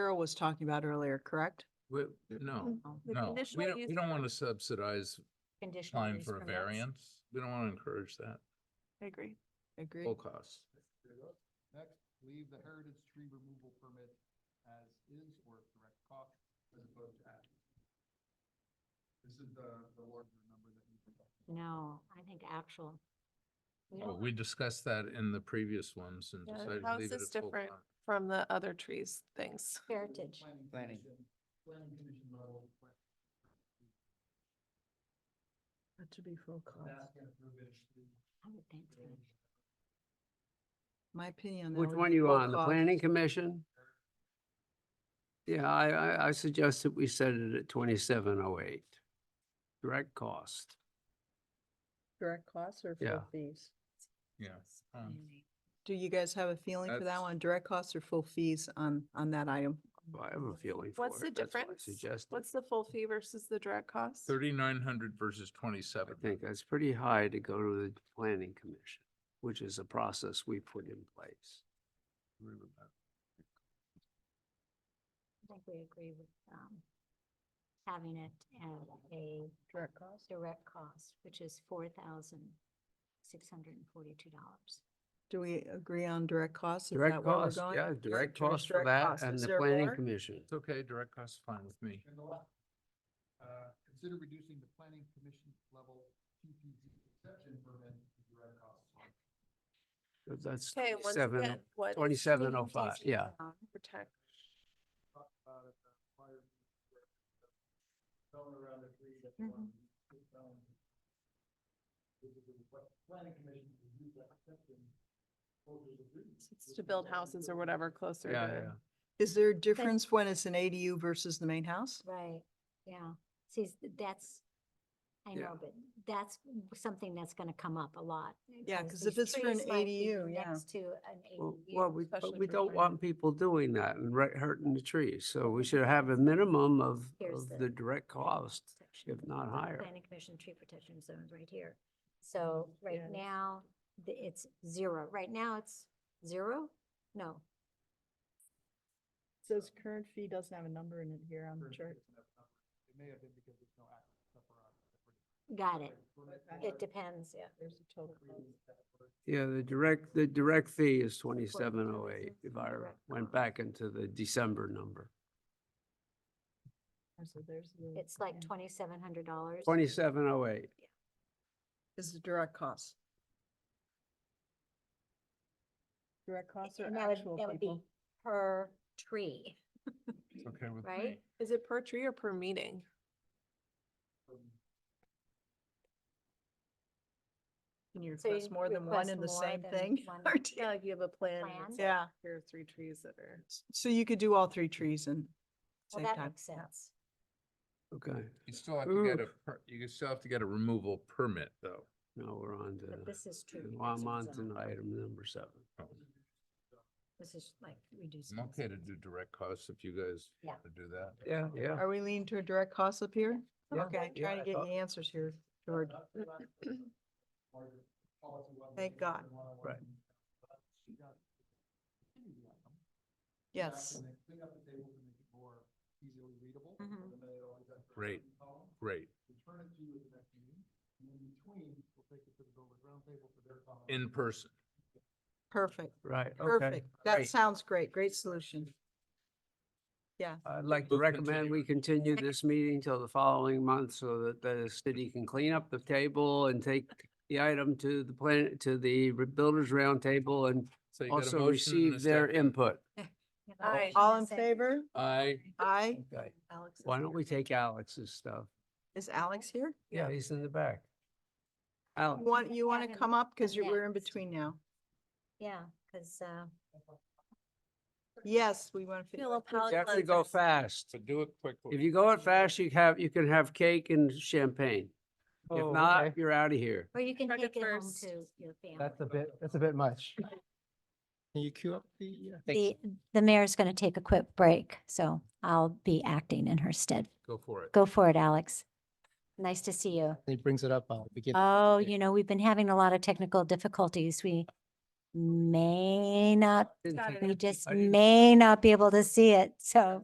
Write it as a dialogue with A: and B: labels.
A: Carol was talking about earlier, correct?
B: We, no,
C: The
B: no, we
C: Mm-hmm. conditional
B: don't,
C: use
B: we don't
C: permit-
B: want to subsidize
D: Conditional
B: applying
D: use
B: for a
D: permits.
B: variance. We don't want to encourage that,
C: I agree.
A: Agree.
B: full cost.
E: Next, leave the heritage tree removal permit as is or direct cost as opposed to add. This is the, the larger number that we.
D: No, I think actual. We
B: Well, Oh,
D: don't-
B: we discussed that in the previous ones and
C: Yeah,
B: decided to
C: how's
B: leave it
C: this
B: at full
C: different?
B: cost.
C: From the other trees, things.
D: Heritage.
E: Planning. commission- Planning commission level.
A: That should be full
E: That's gonna prove it.
D: I would think so.
A: My opinion. on that
F: Which
A: would
F: one
A: be
F: you
A: full
F: on, the
A: cost.
F: planning commission? Yeah, I, I, I suggest that we set it at twenty-seven oh eight. Direct cost.
A: Direct costs or full
F: Yeah.
A: fees?
B: Yeah. um,
A: Do you guys have a feeling for that
B: That's-
A: one? Direct costs or full fees on, on that item?
F: I have a feeling for it.
C: What's the
F: That's why I
C: difference?
F: suggested.
C: What's the full fee versus the direct cost?
B: Thirty-nine hundred versus
F: I
B: twenty-seven.
F: think that's pretty high to go to the planning commission, which is a process we put in place.
B: Agree with that.
D: I think we agree with, um, having it at a
A: Direct cost.
D: direct cost, which is four thousand six hundred and forty-two dollars.
A: Do we agree on direct costs? Is
F: Direct
A: that where we're
F: cost,
A: going?
F: yeah,
A: Direct-
F: direct
A: direct-
F: cost for
A: direct
F: that
A: costs.
F: and
A: Is
F: the
A: there
F: planning
A: more?
F: commission.
B: It's okay, direct cost, is fine with me.
E: And the last, uh, consider reducing the planning commission level PPZ exception permit to direct costs.
F: That's oh
C: Okay, once
F: twenty-seven,
C: again, what?
F: twenty-seven oh five,
D: Presentation
F: yeah.
A: Uh-huh.
D: down.
C: Protect.
E: Talked about it, uh, the fire. Going around the tree that they
D: Mhm.
E: want
F: Mm-hmm.
E: to put down. This is what planning commission would use that exception. holders agree.
C: It's to build houses or whatever closer
F: Yeah,
C: to.
A: Is there a difference when it's an ADU versus the main house?
D: Right, yeah. See, s- that's, I
F: Yeah.
D: know, but that's something that's gonna come up a lot.
A: Yeah, 'cause if it's
D: these
A: for an
D: trees might be
A: ADU, yeah.
D: Next to an
F: Well,
D: ADU.
F: well, we, but
C: especially
F: we
C: for
F: don't
C: farming.
F: want people doing that and ri- hurting the trees, so we should have a minimum of,
D: Here's
F: of
D: the
F: the direct cost,
D: Section.
F: if not higher.
D: Planning Commission tree protection zones right here. So right
C: Yeah.
D: now, the- it's zero. Right now, it's zero? No,
A: Says current fee doesn't have a number in it here on
E: First, it's enough number. It may have been because there's no access up around.
D: got it.
E: depends.
D: It depends, yeah.
A: There's a total.
F: Yeah, the direct, the direct fee is twenty-seven oh eight, if I
D: Direct
F: went
D: cost.
F: back into the December number.
D: It's like twenty-seven hundred dollars.
F: Twenty-seven oh eight,
A: Is the direct cost. Direct costs
D: And that would, that would be per tree,
B: It's okay with me.
D: right?
C: Is it per tree or per meeting?
A: Can you
D: So you
A: request more than one
D: request
A: in the
D: more
A: same
D: than
A: thing?
D: one
A: Or do-
C: Yeah, like you have a plan.
D: Plan?
C: that's like,
A: Yeah,
C: Here are three trees that are.
A: so you could do all three trees and
D: Well,
A: same
D: that
A: time.
D: makes sense.
F: okay,
B: You still have to get a,
F: Oof.
B: per- you still have to get a removal permit, though.
F: now we're on
D: But
F: to,
D: this is true.
F: well, I'm on
D: reducing
F: to
D: zone.
F: item number seven.
D: This is like
B: I'm
D: reducing.
B: okay to
D: zones.
B: do direct costs if you guys
D: Yeah.
B: want to do that.
F: Yeah, yeah.
A: Are we leaning to a direct cost up here?
F: Yeah.
A: Okay, I'm
F: Yeah,
A: trying to
F: I
A: get
F: thought-
A: you answers here, George. Thank God.
F: Right.
A: Yes,
E: Clean up the table to make it more easily readable. and
D: Mhm.
E: then it always has the
B: Great.
E: written column.
B: Great.
E: Return it to you at the next meeting, and in between, we'll take it to the Dover Round Table for their comment.
B: In person.
A: perfect,
F: Right, okay.
A: perfect. That
F: great.
A: sounds great, great solution. Yeah,
F: I'd like to
B: Move
F: recommend
B: continue.
F: we continue this meeting till the following month so that the city can clean up the table and take the item to the plan, to the re- builders roundtable and
B: So you got a motion
F: also
B: and a
F: receive their
B: second.
F: input.
D: Yeah, but
C: Aye.
D: I'm
A: all in
D: saying-
A: favor?
B: I,
A: Aye.
F: Okay.
C: Alex is
F: Why
C: here.
F: don't we take Alex's stuff?
A: Is Alex here?
F: Yeah, he's in the back. Alex,
A: Want, you want to
D: Kevin,
A: come up because
D: come
A: you're, we're in
D: next.
A: between now.
D: Yeah, because, uh,
A: Yes, we want to.
C: Philip, how-
F: you have to go fast.
B: so do it quickly.
F: If you go it fast, you have, you can have cake and champagne. If
G: Oh,
F: not,
G: okay.
F: you're out of here.
D: or you can
C: Try to
D: take it home
C: first.
D: to your family.
G: That's a bit, that's a bit much. Can you queue up the? uh, thank you.
D: The, the mayor's going to take a quick break, so I'll be acting in her stead.
B: Go for it.
D: Go for it, Alex. Nice to see you.
G: He brings it up, I'll begin.
D: Oh, you know, we've been having a lot of technical difficulties. We may not,
F: Didn't
C: Got
F: think-
C: it.
D: we just
F: didn't-
D: may not be able to see it, so.